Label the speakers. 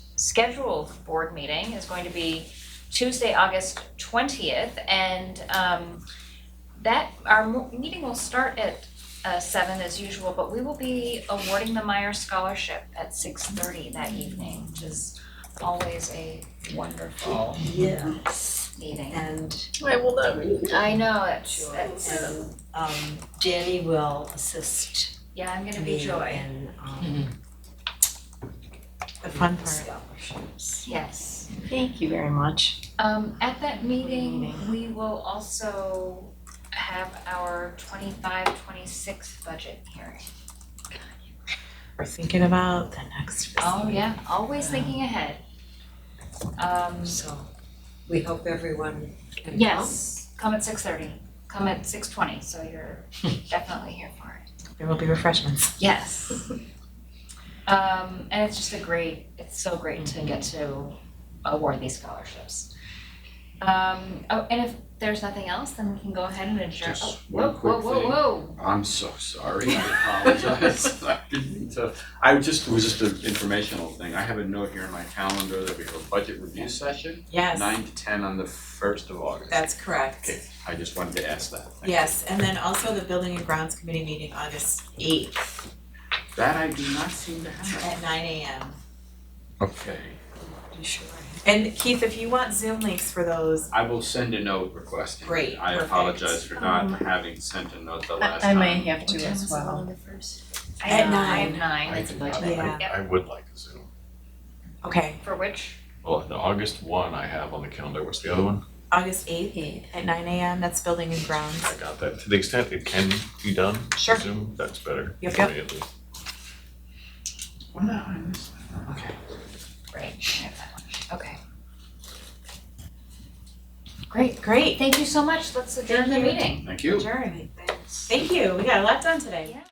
Speaker 1: scheduled board meeting is going to be Tuesday, August twentieth, and um that, our mo- meeting will start at uh seven as usual, but we will be awarding the Meyer Scholarship at six thirty that evening, which is always a
Speaker 2: Oh.
Speaker 1: wonderful
Speaker 2: Yes,
Speaker 1: meeting.
Speaker 2: and,
Speaker 3: I will know.
Speaker 1: I know, it's it's,
Speaker 2: and, um, Danny will assist
Speaker 1: yeah, I'm gonna be
Speaker 2: me
Speaker 1: joy,
Speaker 2: in, um, the fun part. Scholarships.
Speaker 1: yes.
Speaker 3: Thank you very much.
Speaker 1: Um, at that meeting, we will also have our 25-26 budget hearing.
Speaker 3: We're thinking about the next
Speaker 1: Oh, yeah, always thinking ahead. Um,
Speaker 2: So we hope everyone can come.
Speaker 1: yes, come at six thirty, come at six twenty, so you're definitely here for it.
Speaker 3: There will be refreshments.
Speaker 1: Yes. Um, and it's just a great, it's so great to get to award these scholarships. Um, oh, and if there's nothing else, then we can go ahead and adjourn.
Speaker 4: Just
Speaker 1: Oh,
Speaker 4: one
Speaker 1: whoa,
Speaker 4: quick
Speaker 1: Whoa, whoa,
Speaker 4: thing.
Speaker 1: whoa.
Speaker 4: I'm so sorry, I apologize. I didn't mean to- I just, it was just an informational thing. I have a note here in my calendar that we have a budget review session,
Speaker 5: Yes,
Speaker 4: nine to ten on the first of August.
Speaker 5: that's correct.
Speaker 4: Okay, I just wanted to ask that. Thank you.
Speaker 5: Yes, and then also the Building and Grounds Committee meeting August eighth
Speaker 4: That I do not seem to have.
Speaker 5: at nine AM.
Speaker 4: Okay,
Speaker 2: You sure?
Speaker 5: And Keith, if you want Zoom links for those,
Speaker 4: I will send a note requesting. it.
Speaker 5: Great,
Speaker 4: I
Speaker 5: perfect.
Speaker 4: apologize for not having sent a note the last
Speaker 3: I
Speaker 4: time.
Speaker 3: may have to as well.
Speaker 1: I
Speaker 5: At
Speaker 1: know, I have
Speaker 5: nine.
Speaker 1: nine.
Speaker 6: I can-
Speaker 5: budget.
Speaker 6: I- I-
Speaker 1: Yeah.
Speaker 6: I would like a Zoom.
Speaker 5: okay,
Speaker 1: For which?
Speaker 6: Well, the August one I have on the calendar, what's the other one?
Speaker 5: August eighth at nine AM, that's Building and Grounds.
Speaker 6: I got that, to the extent it can be done,
Speaker 5: Sure.
Speaker 6: Zoom, that's better.
Speaker 5: Yep,
Speaker 6: for
Speaker 5: yep.
Speaker 6: me at least.
Speaker 4: Well, no, I missed that. Okay.
Speaker 1: Right. I have that one. Okay.
Speaker 5: Great, great,
Speaker 1: Thank you so much. Let's adjourn the
Speaker 5: Thank you.
Speaker 1: meeting.
Speaker 4: Thank you.
Speaker 5: adjourn.
Speaker 2: Thanks.
Speaker 5: Thank you, we got a lot done today.